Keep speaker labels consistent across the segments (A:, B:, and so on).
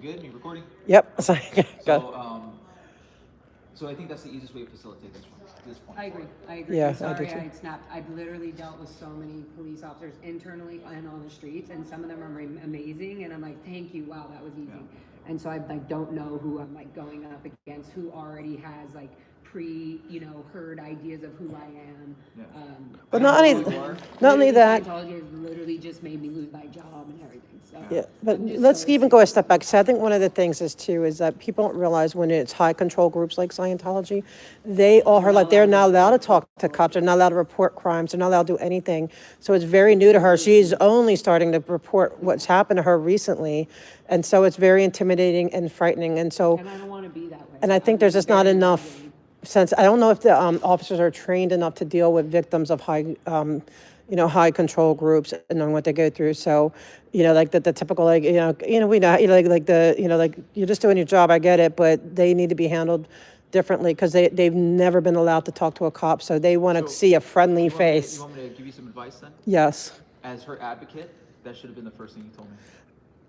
A: good? You recording?
B: Yep. So, got-
A: So, um, so I think that's the easiest way to facilitate this one, this point.
C: I agree, I agree.
B: Yeah, I
C: I'm
B: do
C: sorry,
B: too.
C: I- it's not, I've literally dealt with so many police officers internally and on the streets, and some of them are am- amazing, and I'm like, thank you, wow, that was easy. And so I like don't know who I'm like going up against, who already has like pre, you know, heard ideas of who I am.
A: Yeah.
C: Um,
B: But not
A: I
B: only,
A: don't know who you are.
B: not only
C: literally
B: that,
C: Scientology has literally just made me lose my job and everything, so.
B: yeah, but
C: I'm just
B: let's
C: so
B: even go a step back. So I think one of the things is too, is that people don't realize when it's high control groups like Scientology, they all are like, they're not allowed to talk to cops. They're not allowed to report crimes. They're not allowed to do anything. So it's very new to her. She's only starting to report what's happened to her recently. And so it's very intimidating and frightening. And so.
C: And I don't wanna be that way.
B: And I think there's just not enough sense, I don't know if the um, officers are trained enough to deal with victims of high, um, you know, high control groups and knowing what they go through. So, you know, like the, the typical, like, you know, you know, we know, you know, like, like the, you know, like you're just doing your job, I get it, but they need to be handled differently because they, they've never been allowed to talk to a cop. So they want to
A: So,
B: see a friendly
A: You want me to-
B: face.
A: You want me to give you some advice then?
B: Yes,
A: As her advocate, that should have been the first thing you told me.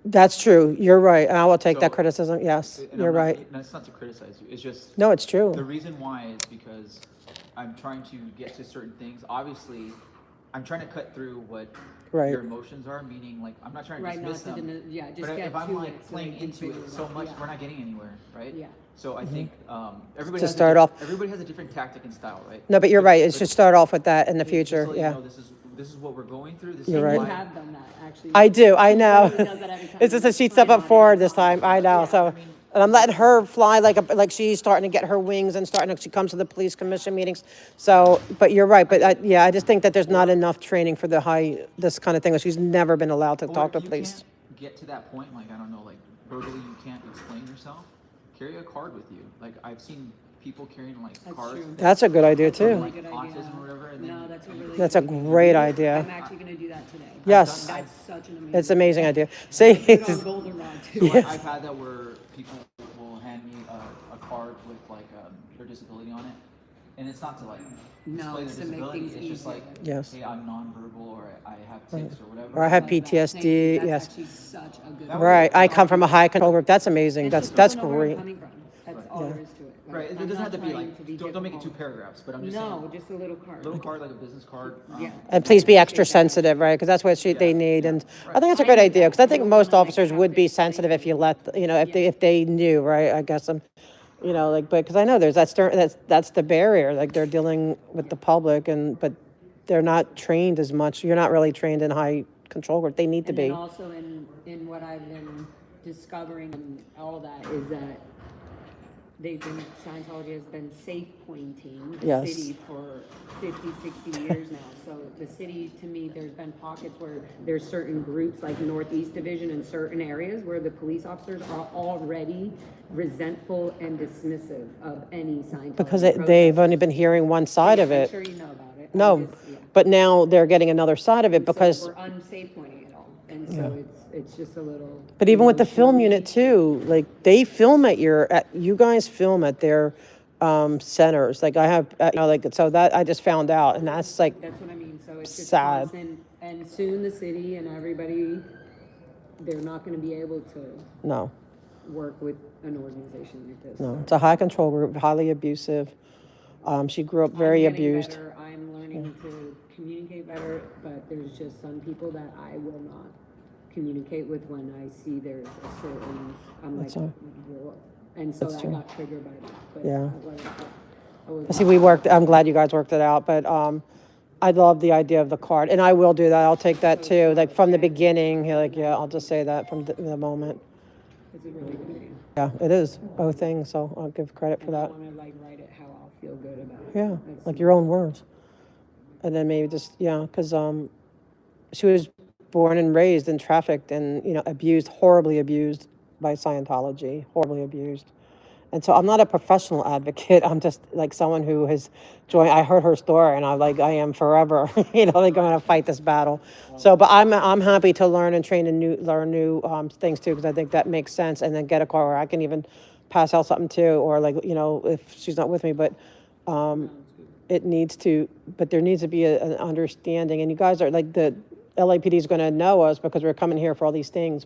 B: that's true. You're right. And I will take that
A: So-
B: criticism. Yes,
A: And I'm
B: you're
A: not-
B: right.
A: And it's not to criticize you, it's just.
B: No, it's true.
A: The reason why is because I'm trying to get to certain things. Obviously, I'm trying to cut through what
B: Right.
A: your emotions are, meaning like I'm not trying to
C: Right,
A: dismiss
C: not to
A: them.
C: deni- yeah, just
A: but
C: get
A: if I'm
C: to
A: like
C: it so
A: playing
C: we can
A: into
C: figure
A: it
C: it
A: so
C: out,
A: much,
C: yeah.
A: we're not getting anywhere, right?
C: Yeah.
A: So I think um, everybody
B: Mm-hmm. To
A: has a
B: start
A: diff-
B: off-
A: Everybody has a different tactic and style, right?
B: No, but you're right. It
A: But
B: should start off with that in the
A: just to
B: future.
A: let you
B: Yeah.
A: know, this is this is what we're going through. This
B: You're
A: is
B: right.
C: You
A: why-
C: have done that, actually.
B: I do, I
C: She
B: know.
C: totally does that every time.
B: It's just that she stepped
C: Fine,
B: up forward
C: audience,
B: this
C: fine.
B: time, I know, so. And I'm letting her fly like, a like she's starting to get her wings and starting, to- she comes to the police commission meetings. So, but you're right, but I, yeah, I just think that there's not enough training for the high, this kind of thing. She's never been allowed to
A: Or
B: talk to
A: if you
B: police.
A: can't Get to that point, like, I don't know, like verbally you can't explain yourself, carry a card with you. Like, I've seen people carrying like
C: That's
A: cards.
C: true.
B: That's a good idea
C: That's a
B: too.
C: really good
A: Autism
C: idea.
A: or whatever, and
C: No,
A: then
C: that's a
A: you-
C: really.
B: That's a
C: good idea.
B: great idea.
C: I'm actually gonna do that today.
B: Yes.
C: That's such an amazing.
B: It's an amazing idea. See,
C: It's on Goldenrod too.
A: So I- I've had that where people will hand me a, a card with like um, their disability on it. And it's not to like
C: No,
A: display
C: it's
A: their
C: to make
A: disability,
C: things
A: it's just
C: easier.
A: like,
B: Yes.
A: hey, I'm nonverbal or I have tics or whatever.
B: Or I have
A: Like,
C: Thank you.
B: PTSD,
C: That's
B: yes.
C: actually such a good.
A: That
C: idea.
B: right, I come from a high control group. That's amazing.
C: And
B: That's,
C: just
B: that's
C: don't know where I'm
B: great.
C: coming from. That's all there is to it. Like,
A: Right, it
C: I'm
A: doesn't
C: not
A: have to be
C: trying
A: like,
C: to be
A: don't, don't make it two
C: difficult.
A: paragraphs, but I'm just saying.
C: No, just a little card.
A: Little card, like a business card. um,
C: Yeah.
B: And please be extra sensitive, right? Because that's what she, they
A: Yeah,
B: need. And
A: yeah,
B: I think that's a
C: right.
B: good
C: I-
B: idea, because I think
C: I
B: most
C: wanna, like,
B: officers
C: have
B: would be
C: this, like-
B: sensitive if you let, th- you know, if they,
C: Yeah.
B: if they knew, right? I guess I'm, you know, like, but, because I know there's, that's, cer- that's, that's the barrier. Like, they're dealing with the public and, but they're not trained as much. You're not really trained in high control group. They need to
C: And then
B: be.
C: also in, in what I've been discovering and all that is that they've been, Scientology has been safe pointing the
B: Yes.
C: city for 50, 60 years now. So the city, to me, there's been pockets where there's certain groups like Northeast Division in certain areas where the police officers are already resentful and dismissive of any Scientology.
B: Because it-
C: protest.
B: they've only been hearing one side of
C: I'm
B: it.
C: sure you know about it. I'm
B: No,
C: just- yeah.
B: but now they're getting another side of it
C: So
B: because
C: We're unsafe pointing it all, and so it's, it's just a little.
B: But even with the film unit too, like they film at your, at, you guys film at their um, centers. Like I have, uh, you know, like so that I just found out, and that's like
C: That's what I mean, so it's just
B: Sad.
C: constant, and soon the city and everybody, they're not gonna be able to
B: no,
C: work with an organization like this.
B: no. It's a high control group, highly abusive. Um, she grew up
C: I'm
B: very
C: getting
B: abused.
C: better, I'm learning to communicate better, but there's just some people that I will not communicate with when I see there's a certain, I'm like, "Whoa." and so I got triggered by that, but I
B: Yeah.
C: was, I was.
B: See, we worked. I'm glad you guys worked it out, but um, I love the idea of the card, and I will do that. I'll take that too. Like from the beginning, you're like yeah, I'll just say that from the, the moment.
C: It's a really good idea.
B: Yeah, it is both things. So I'll give credit for
C: I
B: that.
C: want to like write it how I'll feel good about it.
B: Yeah,
C: That's-
B: like your own words. And then maybe just yeah, because um, she was born and raised and trafficked and you know abused, horribly abused by Scientology, horribly abused. And so I'm not a professional advocate. I'm just like someone who has joined. I heard her story, and I'm like, I am forever, you know, like I'm gonna fight this battle. So, but I'm I'm happy to learn and train and new learn new um, things too, because I think that makes sense. And then get a car where I can even pass out something too, or like you know, if she's not with me, but um, it needs to, but there needs to be a, an understanding. And you guys are like the LAPD is going to know us because we're coming here for all these things.